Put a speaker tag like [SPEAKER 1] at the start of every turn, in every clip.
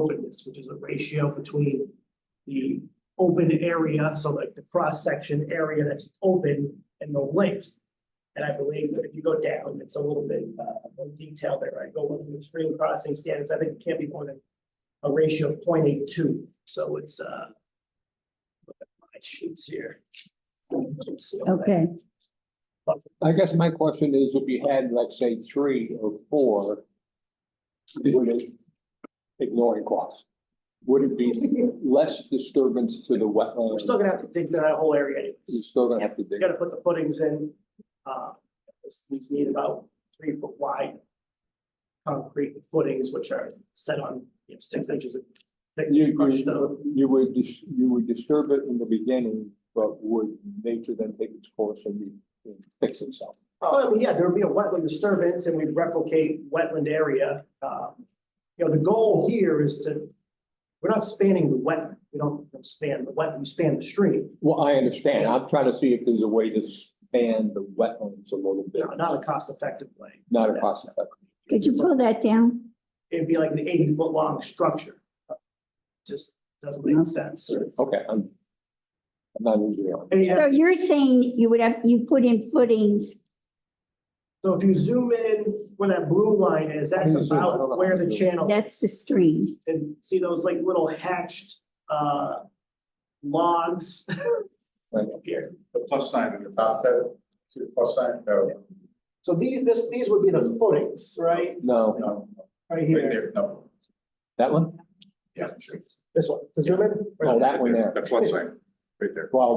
[SPEAKER 1] openness, which is a ratio between the open area, so like the cross-section area that's open and the length. And I believe that if you go down, it's a little bit uh more detail there, right? Go with the extreme crossing standards, I think it can't be more than a ratio of 0.82. so it's uh. look at My sheets here. Let's see.
[SPEAKER 2] Okay,
[SPEAKER 3] I guess my question is if you had, let's say, three or four. Would it, ignoring cost, would it be less disturbance to the
[SPEAKER 1] We're
[SPEAKER 3] wetland?
[SPEAKER 1] still gonna have to dig that whole area anyways.
[SPEAKER 3] You're still gonna have to
[SPEAKER 1] We
[SPEAKER 3] dig.
[SPEAKER 1] gotta put the footings in, uh, these- these need about three foot wide. Concrete footings which are set on, you know, six inches of thick
[SPEAKER 3] You,
[SPEAKER 1] crushed stone.
[SPEAKER 3] you, you would, dis- you would disturb it in the beginning, but would nature then take its course and re- and fix itself?
[SPEAKER 1] Oh, I mean, yeah, there'd be a wetland disturbance and we'd replicate wetland area, uh, you know, the goal here is to. We're not spanning the wet, we don't span the wet, we span the stream,
[SPEAKER 3] Well, I understand. I'm trying to see if there's a way to span the wetlands a little bit,
[SPEAKER 1] you know, not a cost effective way.
[SPEAKER 3] not a cost effective.
[SPEAKER 2] could you pull that down?
[SPEAKER 1] It'd be like an eighty foot long structure. Just doesn't
[SPEAKER 2] Yeah.
[SPEAKER 1] make sense.
[SPEAKER 3] Okay, I'm. I'm not an engineer.
[SPEAKER 1] And you have
[SPEAKER 2] So you're saying you would have, you put in footings,
[SPEAKER 1] So if you zoom in where that blue line is, that's
[SPEAKER 3] Can you zoom? I don't know.
[SPEAKER 1] about where the channel,
[SPEAKER 2] that's the stream.
[SPEAKER 1] and see those like little hatched, uh, logs
[SPEAKER 3] Right.
[SPEAKER 1] up here.
[SPEAKER 4] the plus sign at the top, that, the plus sign, no,
[SPEAKER 1] So these, this, these would be the footings, right?
[SPEAKER 3] No,
[SPEAKER 4] no,
[SPEAKER 1] Right
[SPEAKER 4] right
[SPEAKER 1] here,
[SPEAKER 4] there, no,
[SPEAKER 3] that one?
[SPEAKER 4] yeah, sure.
[SPEAKER 1] this one, the zoom in?
[SPEAKER 3] Oh, that one there.
[SPEAKER 4] The plus sign, right there,
[SPEAKER 3] Well,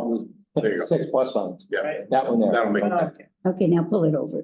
[SPEAKER 3] it
[SPEAKER 4] There you go.
[SPEAKER 3] was six plus signs.
[SPEAKER 4] yeah,
[SPEAKER 3] That one there.
[SPEAKER 4] that'll make,
[SPEAKER 1] Uh,
[SPEAKER 2] Okay, now pull it over.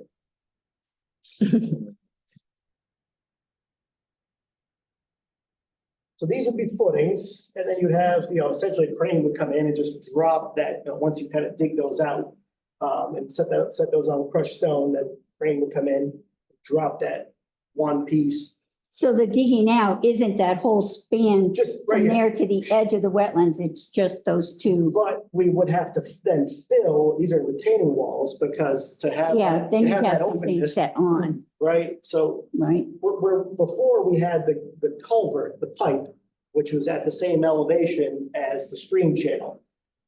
[SPEAKER 1] So these would be footings, and then you have, you know, essentially a crane would come in and just drop that, you know, once you kind of dig those out. Um, and set that, set those on crushed stone, then crane would come in, drop that one piece,
[SPEAKER 2] So the digging out isn't that whole span
[SPEAKER 1] just right
[SPEAKER 2] from
[SPEAKER 1] here.
[SPEAKER 2] there to the edge of the wetlands, it's just those two.
[SPEAKER 1] But we would have to then fill, these are retaining walls, because to have.
[SPEAKER 2] Yeah, then
[SPEAKER 1] to
[SPEAKER 2] you
[SPEAKER 1] that
[SPEAKER 2] have something
[SPEAKER 1] openness,
[SPEAKER 2] set on,
[SPEAKER 1] Right, so
[SPEAKER 2] right?
[SPEAKER 1] we're, we're- before we had the, the culvert, the pipe, which was at the same elevation as the stream channel.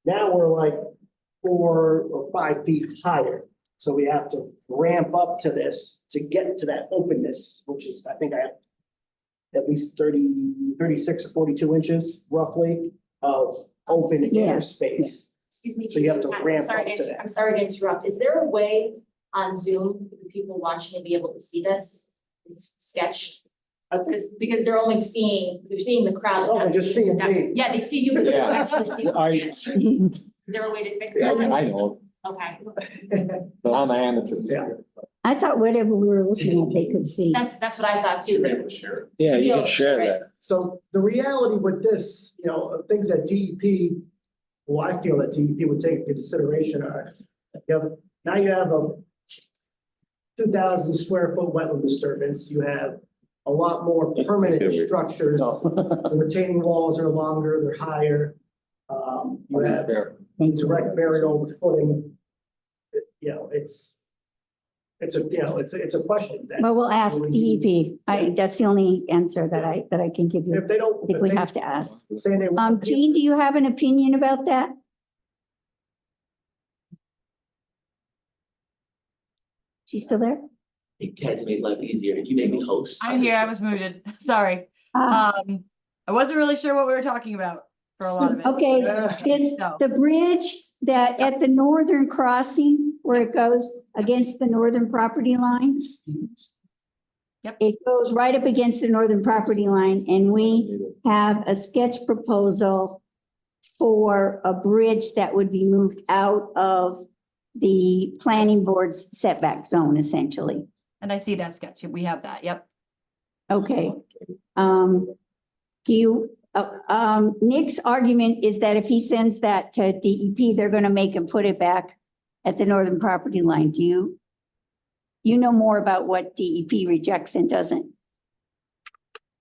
[SPEAKER 1] Now we're like four or five feet higher, so we have to ramp up to this to get to that openness, which is, I think I have at least 30, 36 or forty-two inches roughly of open
[SPEAKER 2] Yeah.
[SPEAKER 1] air space.
[SPEAKER 5] Excuse me.
[SPEAKER 1] So you have to
[SPEAKER 5] Judy, I'm
[SPEAKER 1] ramp
[SPEAKER 5] sorry
[SPEAKER 1] up to that.
[SPEAKER 5] I'm sorry to interrupt. Is there a way on Zoom for the people watching to be able to see this, this sketch?
[SPEAKER 1] I think-
[SPEAKER 5] Because, because they're only seeing, they're seeing the crowd.
[SPEAKER 1] Oh, they're just seeing me.
[SPEAKER 5] Yeah, they see you, but they don't actually see
[SPEAKER 3] I-
[SPEAKER 5] the sketch. Is there a way to fix
[SPEAKER 3] Yeah,
[SPEAKER 5] that?
[SPEAKER 3] I know,
[SPEAKER 5] Okay,
[SPEAKER 3] but I'm an amateur.
[SPEAKER 1] Yeah.
[SPEAKER 2] I thought whatever we were looking at, they could see.
[SPEAKER 5] that's, that's what I thought
[SPEAKER 4] you
[SPEAKER 5] too.
[SPEAKER 4] be
[SPEAKER 5] but-
[SPEAKER 4] able to share it.
[SPEAKER 6] Yeah, you
[SPEAKER 5] Yeah,
[SPEAKER 6] can share
[SPEAKER 5] right.
[SPEAKER 6] that.
[SPEAKER 1] So the reality with this, you know, of things that DEP, well, I feel that DEP would take into consideration are, you have, now you have a two thousand square foot wetland disturbance, you have a lot more permanent structures.
[SPEAKER 3] No.
[SPEAKER 1] The retaining walls are longer, they're higher. Um, you have
[SPEAKER 3] Fair.
[SPEAKER 2] Thank you.
[SPEAKER 1] direct burial with footing. It- You know, it's, it's a, you know, it's, a- it's a question that
[SPEAKER 2] Well, we'll ask DEP. I, that's the only answer that I, that I can give you.
[SPEAKER 1] if they don't.
[SPEAKER 2] I think we have to ask.
[SPEAKER 1] Say they.
[SPEAKER 2] Um, Jean, do you have an opinion about that? She's still there?
[SPEAKER 7] They tend to make life easier. If you make me host.
[SPEAKER 8] I'm here. I was muted. Sorry.
[SPEAKER 2] Ah,
[SPEAKER 8] Um, I wasn't really sure what we were talking about for a lot of it.
[SPEAKER 2] Okay,
[SPEAKER 1] Yeah.
[SPEAKER 2] this,
[SPEAKER 8] No.
[SPEAKER 2] the bridge that at the northern crossing where it goes against the northern property lines.
[SPEAKER 8] Yep.
[SPEAKER 2] It goes right up against the northern property line and we have a sketch proposal for a bridge that would be moved out of the planning board's setback zone essentially.
[SPEAKER 8] And I see that sketch. We have that. Yep.
[SPEAKER 2] Okay, um, do you, uh, um, Nick's argument is that if he sends that to DEP, they're gonna make him put it back at the northern property line. Do you? You know more about what DEP rejects and doesn't.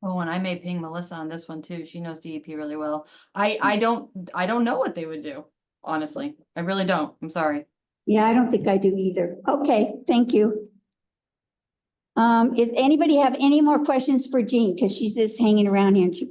[SPEAKER 8] Oh, and I may ping Melissa on this one too. She knows DEP really well. I, I don't, I don't know what they would do, honestly. I really don't. I'm sorry.
[SPEAKER 2] Yeah, I don't think I do either. Okay, thank you. Um, is anybody have any more questions for Jean? Cause she's just hanging around here and she